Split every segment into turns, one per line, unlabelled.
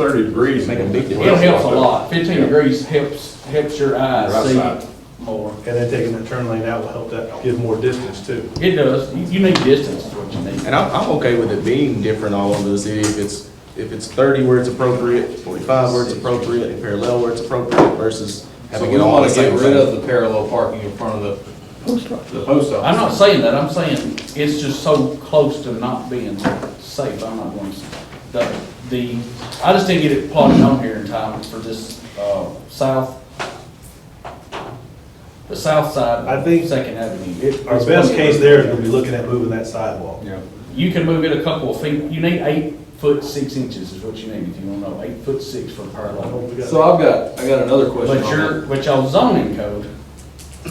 thirty degrees.
Make a big difference.
It helps a lot. Fifteen degrees helps, helps your
Right
eyes
side.
see more.
And then taking that turn lane out will help that give more distance too.
It does. You- You need distance is what you need.
And I'm, I'm okay with it being different all over the city, if it's, if it's thirty where it's appropriate, forty-five where it's appropriate, and parallel where it's appropriate versus
So
having
we
it all the
want to get
same
rid
thing.
of the parallel parking in front of the, the post
I'm
office.
not saying that. I'm saying it's just so close to not being safe. I'm not going to, the, the, I just didn't get it plotted on here in time for this, uh, south, the south side
I
of
think
Second Avenue. It-
Our
it's
best
plenty-
case there is gonna be looking at moving that sidewalk.
Yeah.
You can move it a couple of feet. You need eight foot six inches is what you need if you want to know. Eight foot six for parallel.
So I've got, I got another question
But
on
your, but y'all zoning code
that.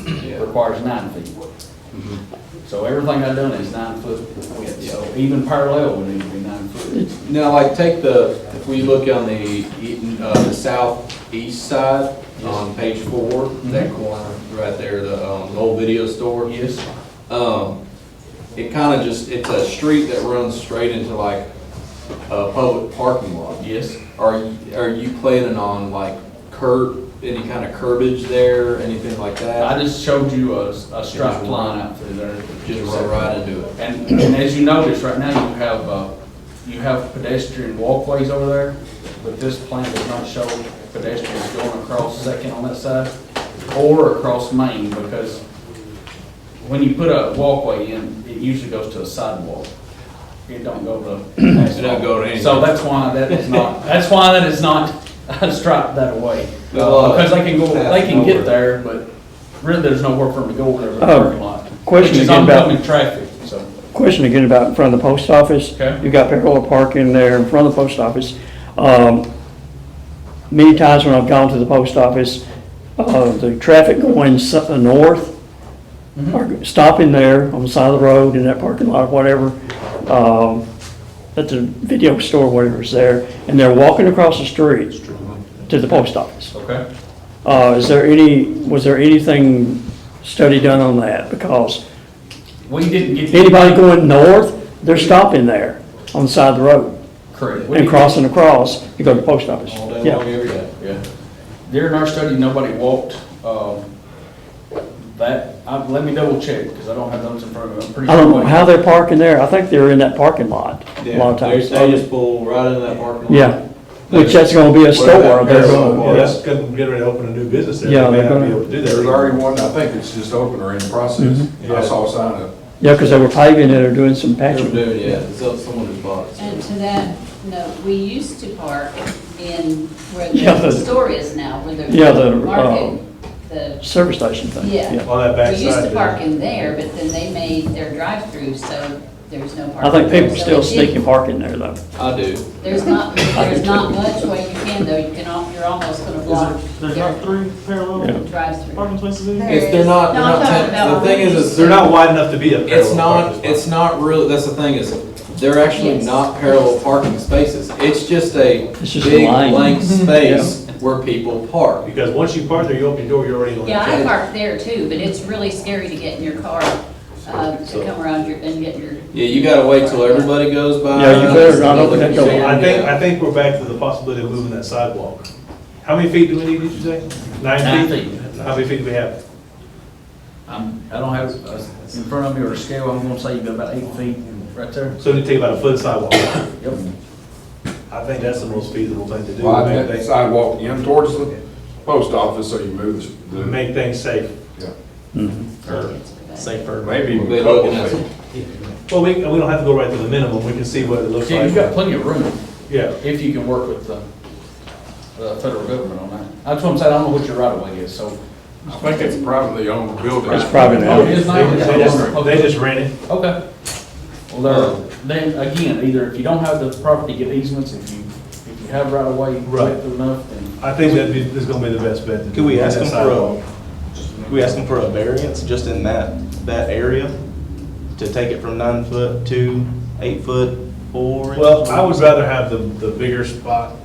Yeah. Mm-hmm.
requires nine feet. So everything I've done is nine foot width, so even parallel would need to be nine foot.
Now, like, take the, if we look on the, e- uh, the southeast side, on page four,
Mm-hmm.
that corner, right there, the, um, the old video store.
Yes,
Um, it kinda just, it's a street that runs straight into like a public parking lot.
yes.
Are, you- are you planning on like curb, any kind of curbage there, anything like
I
that?
just showed you a, a striped line out through there.
Just run right into it.
And, and as you notice, right now, you have, uh, you have pedestrian walkways over there, but this plan does not show pedestrians going across Second on that side or across Main, because when you put a walkway in, it usually goes to a sidewalk. It don't go to. It
don't go to anything.
So that's why that is not, that's why that is not striped that way.
Well, uh,
Because they can go, they can
over.
get there, but really, there's nowhere for them to go over there with the
Oh,
parking lot. Which
question
is
again about-
oncoming traffic, so.
Question again about in front of the post office.
Okay.
You've got parallel parking there in front of the post office. Um, Many times when I've gone to the post office, uh, the traffic going s- uh, north, or stopping there on the side of the road in that parking lot, whatever, um, at the video store, whatever's there, and they're walking across the street to the post office.
Okay.
Uh, Is there any, was there anything study done on that? Because
We didn't get.
Anybody going north, they're stopping there on the side of the road
Correct. We
and
didn't-
crossing across, you go to the post office.
All day
Yeah.
long, every day.
Yeah. During our study, nobody walked, um, that, I, let me double check, because I don't have those in front of me. I'm pretty
I don't
sure
know
they-
how they're parking there. I think they're in that parking lot a lot of
Yeah,
times.
They just pull right into that parking lot.
Yeah, which that's gonna be a store. They're gonna-
Yeah, that's gonna get ready to open a new business there.
Yeah,
They may
they're
not be
gonna-
able to do that.
There's already one, I think it's just open or in process. I saw a sign up.
Yeah, because they were paving it or doing some
They're
patching.
doing, yeah, it's up someone who's bought it.
And to that, no, we used to park in where
Yeah, the-
the store is now, where
Yeah, the, uh,
the market, the,
Service station thing.
yeah.
On that
We
backside.
used to
there.
park in there, but then they made their drive-through, so there's no
I
parking.
think people
So
still
it did-
sneak and park in there though.
I do.
There's not, there's not much way you can though, you can, al- you're almost gonna block.
There's
their
not three parallel
Drive-through.
parking places in here?
It's, they're not, they're
No, I'm
not,
talking
ten-
about
the thing is, is
oranges.
they're
They're
not,
not wide enough to be a parallel.
it's not,
parking
it's
spot.
not really, that's the thing is, they're actually
Yes.
not parallel parking spaces. It's just a
It's just a
big
line.
blank space where people park.
Because once you park there, you open your door, you're already on the
Yeah, I
track.
parked there too, but it's really scary to get in your car, uh, to come around your, and get your.
Yeah, you gotta wait till everybody goes by.
Yeah, you better not open that door.
So I think, I think we're back to the possibility of moving that sidewalk. How many feet do we need, did you say?
Nine
Nine feet?
feet.
How many feet do we have?
I'm, I don't have, uh, in front of me or a scale, I'm gonna say you've got about eight feet right there.
So we need to take about a foot of sidewalk.
Yep.
I think that's the most feasible thing to do.
Well,
Make
I think
things-
sidewalk in towards the post office, so you move the,
Make things safe.
or
Safer.
maybe even
They're
a couple
looking at
feet.
Well, we, we don't have to go right to the minimum, we can see what it looks
Yeah, you've got
like.
plenty of room
Yeah,
if you can work with the, the federal government on that. That's what I'm saying, I don't know what your right of way is, so.
I think it's privately owned building.
It's private
Oh, it
now.
is
they
not?
they just, they just rent it.
Okay. Well, there, then, again, either if you don't have the property, get easements, if you, if you have right of way,
Right.
width enough, then.
I think that'd be, that's gonna be the best bet. to
Could we
do
ask
that
them for a-
sidewalk.
We asked them for a variance just in that, that area, to take it from nine foot to eight foot four. inches?
Well, I would rather have the, the bigger spot,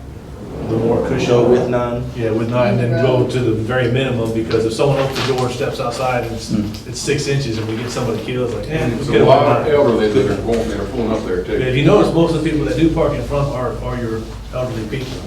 the more cushion.
Go with nine.
Yeah, with nine, then go to the very minimum, because if someone opens the door, steps outside, and it's,
Hmm.
it's six inches, and we get somebody killed, it's like, eh,
And
let's
it's
get
a
it with
lot of
nine.
elderly that are going, that are pulling up there
If
too.
you notice, most of the people that do park in front are, are your elderly people.